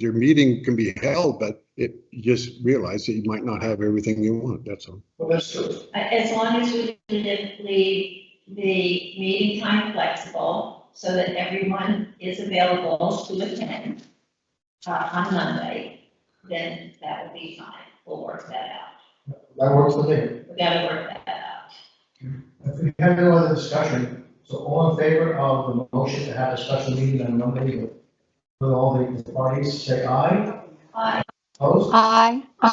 your meeting can be held, but it, you just realize that you might not have everything you want, that's all. Well, that's true. Uh, As long as we can leave the meeting time flexible so that everyone is available to attend uh, on Monday, then that would be fine. We'll work that That works for me. out. We gotta work that out. If we have no other discussion, so all in favor of the motion to have a special meeting on Monday with with all the parties, say aye. Aye. Opposed? Aye. All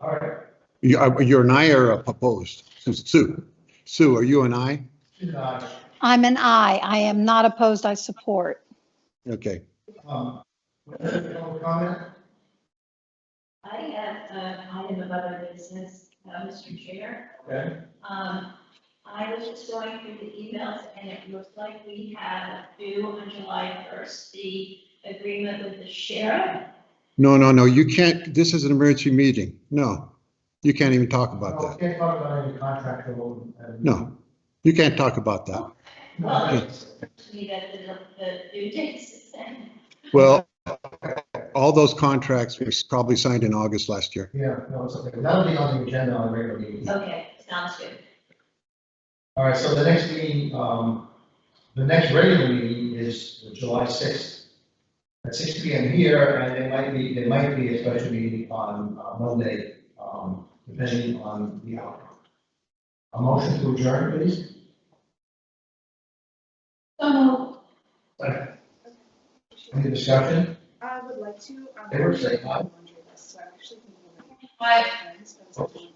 right. You, I- you and I are opposed, Sue. Sue, are you and I? Two ayes. I'm an aye. I am not opposed. I support. Okay, Um, no Comment? I have an item of other business, uh, Mr. Chair. Okay. Um, I was just going through the emails and it looks like we have due on July 1st, the agreement with the sheriff. no, no, no, you can't, this is an emergency meeting, no. You can't even talk about No, Oh, that, we Can't talk about any contract or. no. You can't talk about that. Well, it just seems to me that the, the due dates is then. Well, all those contracts were probably signed in August last year. Yeah, no, it's okay. That'll be on the agenda on a regular meeting. Okay, sounds good. All right, so the next meeting, um, the next regular meeting is July sixth. At six P M here, and there might be, there might be a special meeting on uh, Monday, um, depending on the outcome. A motion to adjourn, please? So, Any discussion? I would like to. um, They were saying aye. laundry list, so I actually can- I, Friends, but it's-